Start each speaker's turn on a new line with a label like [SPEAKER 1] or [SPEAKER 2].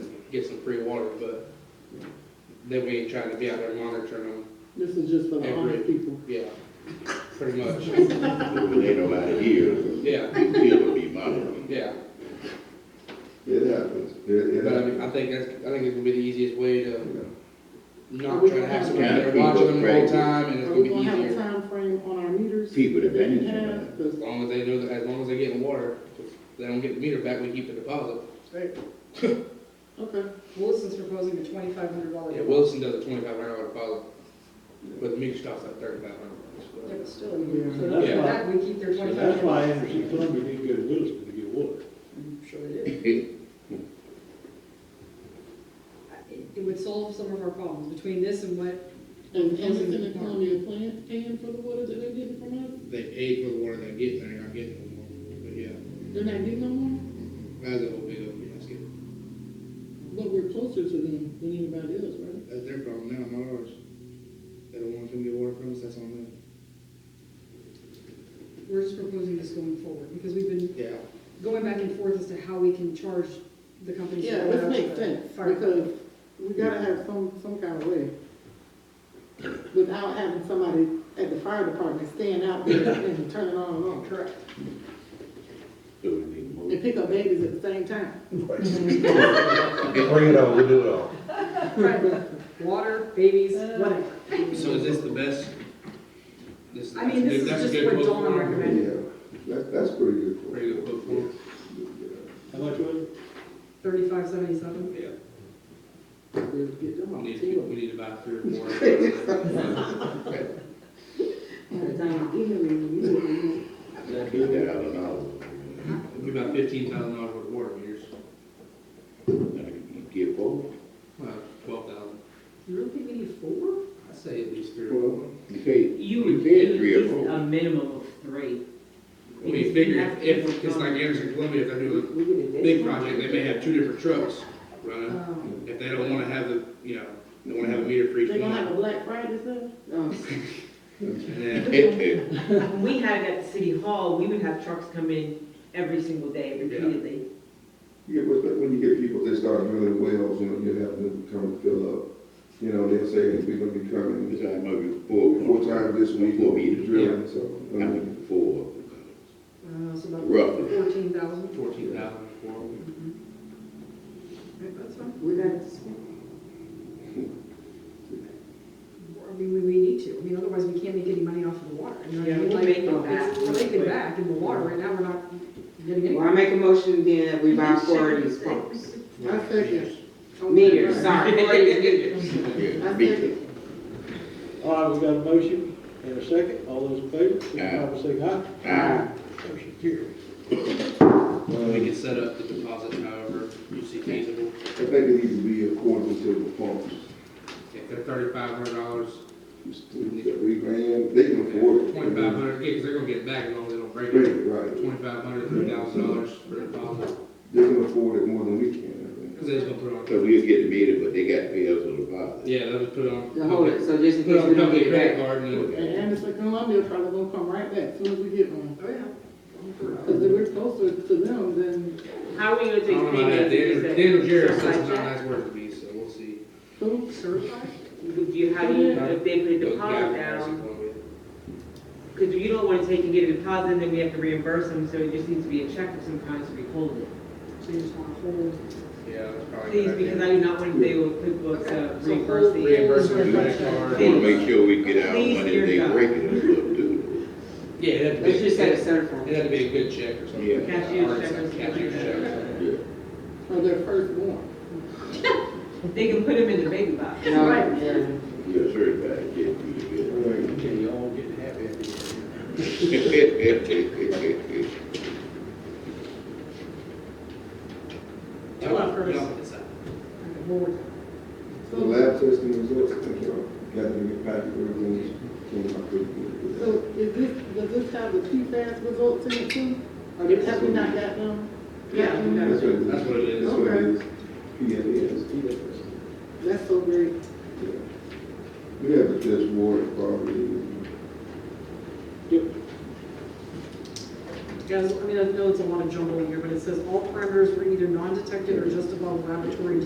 [SPEAKER 1] get some free water, but then we ain't trying to be out there monitoring them,
[SPEAKER 2] This is just for the honest people.
[SPEAKER 1] yeah, pretty much,
[SPEAKER 3] When ain't nobody here,
[SPEAKER 1] yeah,
[SPEAKER 3] you still would be monitoring.
[SPEAKER 1] yeah.
[SPEAKER 4] It happens. It, it
[SPEAKER 1] But I mean,
[SPEAKER 4] happens.
[SPEAKER 1] I think that's, I think it's gonna be the easiest way to not
[SPEAKER 2] Are we
[SPEAKER 1] try to
[SPEAKER 2] gonna
[SPEAKER 1] have
[SPEAKER 2] have-
[SPEAKER 1] somebody there watching them the whole
[SPEAKER 3] Right.
[SPEAKER 1] time, and it's
[SPEAKER 2] Are
[SPEAKER 1] gonna
[SPEAKER 2] we
[SPEAKER 1] be
[SPEAKER 2] gonna have a
[SPEAKER 1] easier.
[SPEAKER 2] time frame on our meters?
[SPEAKER 3] People
[SPEAKER 2] that
[SPEAKER 3] that
[SPEAKER 2] we
[SPEAKER 3] manage it,
[SPEAKER 2] have?
[SPEAKER 3] man.
[SPEAKER 2] 'Cause
[SPEAKER 1] As long as they know, that as long as they're getting water, if they don't get the meter back, we keep the deposit.
[SPEAKER 2] Okay,
[SPEAKER 5] Wilson's proposing a twenty-five hundred dollar.
[SPEAKER 1] Yeah, Wilson does a twenty-five hour deposit, but the meter stops at thirty-five hundred.
[SPEAKER 5] But still, we-
[SPEAKER 2] so
[SPEAKER 5] for
[SPEAKER 1] Yeah.
[SPEAKER 2] that's why,
[SPEAKER 5] that, we keep their
[SPEAKER 6] So
[SPEAKER 5] twenty-five.
[SPEAKER 6] that's why Anderson Plumbing didn't go to Williston to get water.
[SPEAKER 5] I'm sure they did. It it would solve some of our problems between this and what,
[SPEAKER 2] and Anderson and Columbia plan, paying for the water that they're getting from us,
[SPEAKER 1] They pay for the water they get, and they're not getting no more, but yeah,
[SPEAKER 2] they're not getting no more,
[SPEAKER 1] that's a whole big, old basket.
[SPEAKER 2] but we're closer to them than anybody else, right?
[SPEAKER 1] That's their problem now, not ours. They don't want them to get water from us, that's on them.
[SPEAKER 5] we're just proposing this going forward, because we've been
[SPEAKER 1] Yeah.
[SPEAKER 5] going back and forth as to how we can charge the companies.
[SPEAKER 2] Yeah,
[SPEAKER 5] that go
[SPEAKER 2] this
[SPEAKER 5] out
[SPEAKER 2] makes
[SPEAKER 5] to
[SPEAKER 2] sense,
[SPEAKER 5] fire.
[SPEAKER 2] because we gotta have some, some kind of way without having somebody at the fire department stand out there and turning on and off,
[SPEAKER 5] Correct.
[SPEAKER 3] So we need more.
[SPEAKER 2] and pick up babies at the same time.
[SPEAKER 4] Bring it on, we do it all.
[SPEAKER 5] Right. Water, babies,
[SPEAKER 2] Uh,
[SPEAKER 5] whatever.
[SPEAKER 1] So is this the best? This,
[SPEAKER 5] I mean, this is
[SPEAKER 1] that's a
[SPEAKER 5] just
[SPEAKER 1] good
[SPEAKER 5] what
[SPEAKER 1] quote
[SPEAKER 5] Dawn
[SPEAKER 1] for him.
[SPEAKER 5] recommended,
[SPEAKER 4] Yeah, that, that's pretty good. for
[SPEAKER 1] Pretty good quote for him.
[SPEAKER 6] How much was it?
[SPEAKER 5] thirty-five seventy-seven.
[SPEAKER 1] Yeah.
[SPEAKER 2] We'll get them
[SPEAKER 1] We
[SPEAKER 2] on
[SPEAKER 1] need,
[SPEAKER 2] too.
[SPEAKER 1] to- we need to buy three or more. of those.
[SPEAKER 3] Do that, I don't know.
[SPEAKER 1] It'd be about fifteen thousand dollars worth of water meters,
[SPEAKER 3] You Get four?
[SPEAKER 1] well, twelve thousand.
[SPEAKER 5] You really think we need four?
[SPEAKER 1] I'd say at least three or four.
[SPEAKER 3] Well, You say,
[SPEAKER 7] You
[SPEAKER 3] you
[SPEAKER 7] would uh,
[SPEAKER 3] said
[SPEAKER 7] need
[SPEAKER 3] three
[SPEAKER 7] at
[SPEAKER 3] or
[SPEAKER 7] least a
[SPEAKER 3] four.
[SPEAKER 7] minimum of three.
[SPEAKER 1] I mean, figure, if, if it's like Anderson Columbia, if they're doing a big project, they may have two different trucks running.
[SPEAKER 5] Um,
[SPEAKER 1] If they don't wanna have the, you know, they wanna have a meter for each
[SPEAKER 2] They gonna have
[SPEAKER 1] one.
[SPEAKER 2] a Black Friday sale? Oh,
[SPEAKER 1] And then
[SPEAKER 7] When we had it at the city hall, we would have trucks come in every single day repeatedly.
[SPEAKER 4] Yeah, but but when you get people that start drilling wells, you know, you have them come fill up, you know, they'll say, we're gonna be coming
[SPEAKER 3] This time maybe
[SPEAKER 4] four
[SPEAKER 3] four.
[SPEAKER 4] times this week,
[SPEAKER 3] Four
[SPEAKER 4] we'll
[SPEAKER 3] meters.
[SPEAKER 4] be drilling, so. I
[SPEAKER 3] I
[SPEAKER 4] mean,
[SPEAKER 3] mean, four.
[SPEAKER 5] uh, so about
[SPEAKER 3] Roughly.
[SPEAKER 5] fourteen thousand.
[SPEAKER 1] fourteen thousand for.
[SPEAKER 5] That's fine.
[SPEAKER 2] we got it.
[SPEAKER 5] I mean, we, we need to, I mean, otherwise we can't make any money off of the water, you know what I
[SPEAKER 7] Yeah,
[SPEAKER 5] mean?
[SPEAKER 7] we'll
[SPEAKER 5] Like,
[SPEAKER 7] make it
[SPEAKER 5] it's-
[SPEAKER 7] back
[SPEAKER 5] We're
[SPEAKER 7] real
[SPEAKER 5] making
[SPEAKER 7] quick.
[SPEAKER 5] back in the water, right now we're not getting any.
[SPEAKER 8] Well, I make a motion then that we buy four of these pumps.
[SPEAKER 2] I second.
[SPEAKER 8] Meters, sorry, four of these meters.
[SPEAKER 3] Yeah,
[SPEAKER 2] I
[SPEAKER 3] me
[SPEAKER 2] second.
[SPEAKER 3] too.
[SPEAKER 6] All right, we got a motion and a second. All those in favor, signify by saying aye.
[SPEAKER 3] Ah,
[SPEAKER 6] Motion carried.
[SPEAKER 1] We can set up the deposit however you see feasible.
[SPEAKER 4] I think it needs to be according to the pumps.
[SPEAKER 1] If they're thirty-five hundred dollars,
[SPEAKER 4] It's two, Three grand, they can afford it.
[SPEAKER 1] twenty-five hundred, yeah, cause they're gonna get it back as long as they don't break it.
[SPEAKER 4] Right, right.
[SPEAKER 1] Twenty-five hundred, three thousand dollars for the deposit,
[SPEAKER 4] They can afford it more than we can,
[SPEAKER 1] cause they just gonna put it
[SPEAKER 3] So
[SPEAKER 1] on.
[SPEAKER 3] we'll get the meter, but they got to pay us a deposit.
[SPEAKER 1] Yeah, they'll just put it on.
[SPEAKER 8] Now, hold it, so just in
[SPEAKER 1] Put it
[SPEAKER 8] case
[SPEAKER 1] on
[SPEAKER 8] we don't
[SPEAKER 1] company
[SPEAKER 8] get
[SPEAKER 1] credit
[SPEAKER 8] it back.
[SPEAKER 1] card and
[SPEAKER 2] And Anderson Columbia probably gonna come right back soon as we get one.
[SPEAKER 5] Oh, yeah.
[SPEAKER 2] Cause if we're closer to them, then
[SPEAKER 7] How are we gonna
[SPEAKER 1] I don't
[SPEAKER 7] take
[SPEAKER 1] know about that,
[SPEAKER 7] payment?
[SPEAKER 1] Daniel,
[SPEAKER 7] Is that
[SPEAKER 1] Daniel Jarrett says
[SPEAKER 7] certified
[SPEAKER 1] it's not a
[SPEAKER 7] check?
[SPEAKER 1] nice word to me, so we'll see.
[SPEAKER 2] who?
[SPEAKER 5] Certified?
[SPEAKER 7] Would you, how do you, if they put a
[SPEAKER 1] Those guys
[SPEAKER 7] deposit
[SPEAKER 1] are
[SPEAKER 7] down?
[SPEAKER 1] obviously gonna be-
[SPEAKER 7] Because you don't wanna take and get a deposit, and then we have to reimburse them, so it just needs to be a check of some kind to be holding.
[SPEAKER 5] So you just want to hold.
[SPEAKER 1] Yeah, that's probably. a
[SPEAKER 7] Please,
[SPEAKER 1] good
[SPEAKER 7] because I
[SPEAKER 1] idea.
[SPEAKER 7] do not want to deal with QuickBooks
[SPEAKER 5] Okay,
[SPEAKER 7] uh,
[SPEAKER 5] so hold-
[SPEAKER 7] reimbursing.
[SPEAKER 1] Reimbursement
[SPEAKER 5] hold
[SPEAKER 1] credit
[SPEAKER 5] certified
[SPEAKER 1] card.
[SPEAKER 3] I
[SPEAKER 7] Please.
[SPEAKER 3] want to make sure we get our
[SPEAKER 7] Please,
[SPEAKER 3] money
[SPEAKER 7] dear
[SPEAKER 3] if they
[SPEAKER 7] God.
[SPEAKER 3] break it and stuff too.
[SPEAKER 1] Yeah, it'd have to
[SPEAKER 8] Let's
[SPEAKER 1] be,
[SPEAKER 8] just say it's
[SPEAKER 1] it'd
[SPEAKER 8] certified.
[SPEAKER 1] have to be a good check or something.
[SPEAKER 3] Yeah.
[SPEAKER 7] Cashier's
[SPEAKER 1] Or
[SPEAKER 7] check or
[SPEAKER 1] something,
[SPEAKER 7] something like
[SPEAKER 1] cashier's
[SPEAKER 7] that.
[SPEAKER 1] check or something.
[SPEAKER 3] Yeah.
[SPEAKER 2] Or their first one.
[SPEAKER 7] They can put them in the baby box.
[SPEAKER 8] No,
[SPEAKER 5] Right.
[SPEAKER 8] yeah.
[SPEAKER 3] Yeah, certified, yeah, yeah.
[SPEAKER 4] right?
[SPEAKER 6] Okay, y'all getting happy at the end.
[SPEAKER 3] Well,
[SPEAKER 1] Y'all-
[SPEAKER 5] Well, first-
[SPEAKER 1] y'all decide.
[SPEAKER 5] Okay, we'll work.
[SPEAKER 4] The lab testing results, I think, are gathering the packet, everything came out pretty good.
[SPEAKER 2] So is this, does this have the PFAS results in it too? Or
[SPEAKER 4] Yes.
[SPEAKER 2] have we not got them?
[SPEAKER 8] Yeah, we got
[SPEAKER 4] That's what it is.
[SPEAKER 1] That's what it is.
[SPEAKER 4] That's what it
[SPEAKER 2] Okay.
[SPEAKER 4] is. PFAS.
[SPEAKER 2] That's so great.
[SPEAKER 4] Yeah. We have to test water quality.
[SPEAKER 5] Guys, I mean, I know it's a lot of jumble in here, but it says all parameters were either non-detected or just above laboratory